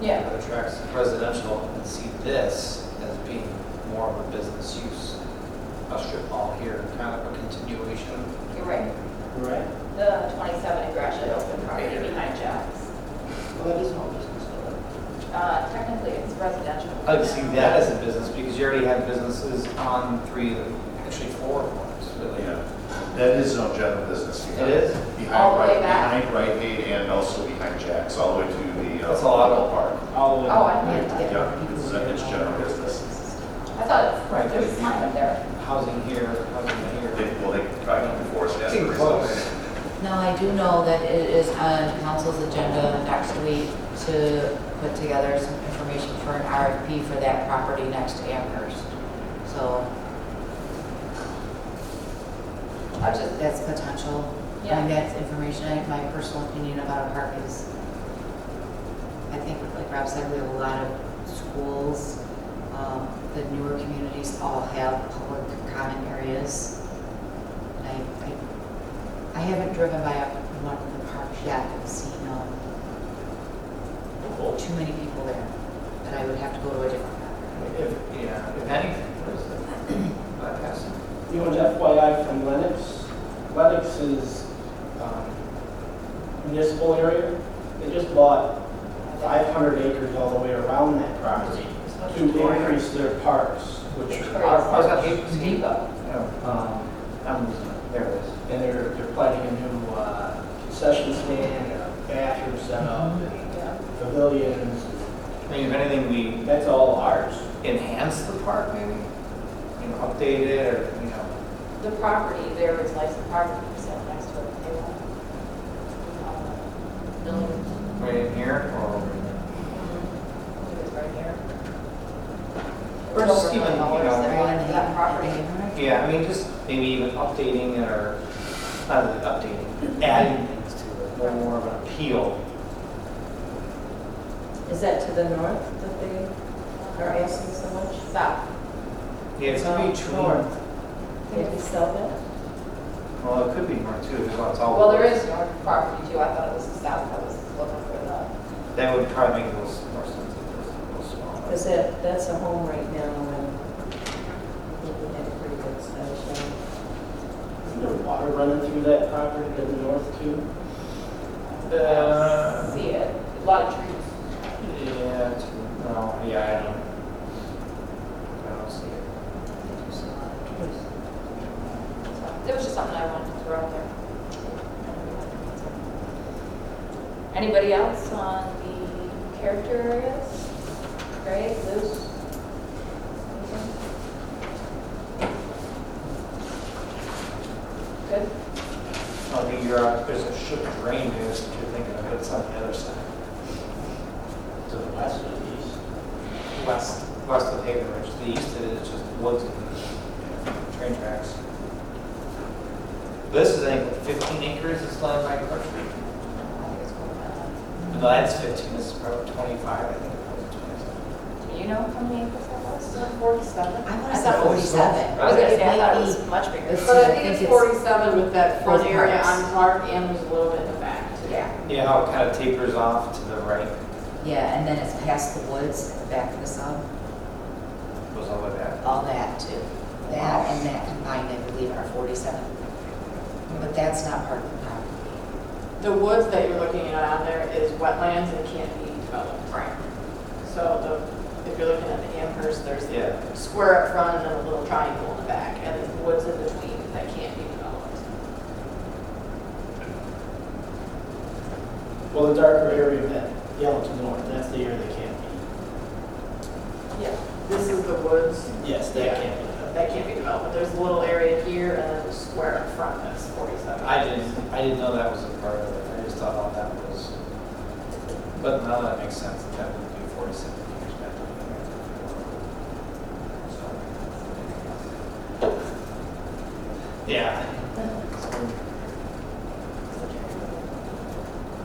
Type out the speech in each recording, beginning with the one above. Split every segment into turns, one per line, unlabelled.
Yeah.
that attracts residential and see this as being more of a business use. A strip mall here, kind of a continuation.
You're right.
Right.
The 27 in Gratiot open property behind Jack's.
Well, that is all business, though.
Uh, Technically, it's residential.
I'd Oh, see that as a business because you already have businesses on three, of the- actually four of them, really.
Yeah, that is no general business.
It is?
All
Behind
the way
Rite,
back?
behind Rite Aid and also behind Jack's, all the way to the. uh,
That's a lot.
Bell Park.
All
Oh,
of
I
them,
didn't get that.
Yeah, it's, uh, it's general business.
I thought
Right,
there was a sign up there.
housing here, housing
They,
here.
well, they try to enforce that.
Seem close.
Now, I do know that it is on council's agenda next week to put together some information for an RFP for that property next to Amherst. So
I was just,
that's potential. I mean, that's information, I, my personal opinion about a park is, I think, like Rob said, we have a lot of schools. Um, the newer communities all have public common areas. I, I, I haven't driven by one of the parks yet and seen, um, too many people there, but I would have to go to a different park.
If, yeah, if anything, what is it? Bypassing.
You know, an FYI from Lennox, Lennox is um, municipal area. They just bought 500 acres all the way around that property to increase their parks, which are
Oh,
our
Ours got
parks.
though. No,
Um,
Oh, I'm losing it. There it is.
And they're, they're planning a new uh, concession stand, a bathroom setup,
yeah.
and pavilions.
I mean, if anything, we
That's all ours.
enhance the park maybe, you know, update it or, you know,
The property there is licensed parking for sale next to it. They want, um, building,
right in here or over there.
I believe it's right here.
Or just even, you
Dollars
know,
that belong to That property.
Yeah, I mean, just maybe even updating it or, not really updating, adding things to it, more more of an appeal.
Is that to the north that they are asking so much?
South.
Yeah, it's in
Oh,
between.
North. Did we sell that?
Well, it could be more too, because it's all.
Well, there is north property too. I thought it was the south that was looking for the.
That would probably make those more sense if it was a little smaller.
Because that, that's a home right now and we had a pretty good snow show.
Isn't there water running through that property to the north too?
Uh,
see it. A lot of trees.
Yeah, it's- no, yeah, I don't, I don't see it.
So It was just something I wanted to throw out there. Anybody else on the character areas? Greg, Luce? Good?
I think you're, uh, there's a ship drain there, if you're thinking of it, it's on the other side,
To the west or the east?
west, west of Haven Ridge. The east of it is just woods and train tracks. This is, I think, fifteen acres is land by Clark Street.
I think it's uh, going
No,
down.
that's fifteen, this is probably twenty-five, I think it was twenty-seven.
Do you know how many acres that was?
Forty-seven?
I
I
want to
thought
say
it was
forty-seven.
I was gonna say, I thought it
Maybe.
was much bigger.
It's-
But I think it's
it's-
forty-seven with that front
Both
area
parts.
on Clark and there's a little bit in the back too.
Yeah.
Yeah, how it kind of tapers off to the right,
Yeah, and then it's past the woods, at the back of the sub,
goes all the way back.
all that too. That and that combined, I believe, are forty-seven. But that's not part of the property.
The woods that you're looking at on there is wetlands and can't be developed.
Right.
So the, if you're looking at the Amherst, there's
Yeah.
the square up front and then a little triangle in the back and the woods in between that can't be developed.
Well, the darker area of that yellow to the north, that's the area they can't be.
Yeah. This is the woods.
Yes,
Yeah.
that can't be done.
That can't be developed. There's a little area here and then the square up front that's forty-seven.
I didn't, I didn't know that was a part of it, I just thought all that was, but now that makes sense, that that would be forty-seven years back. So. Yeah.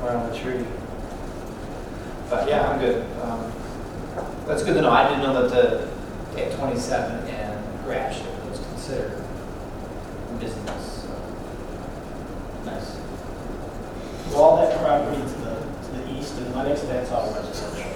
Around the tree. But yeah, I'm good. Um, That's good to know, I didn't know that the, at twenty-seven and Gratiot was considered business, so, nice.
Well, all that property to the, to the east and Lennox, that's all residential.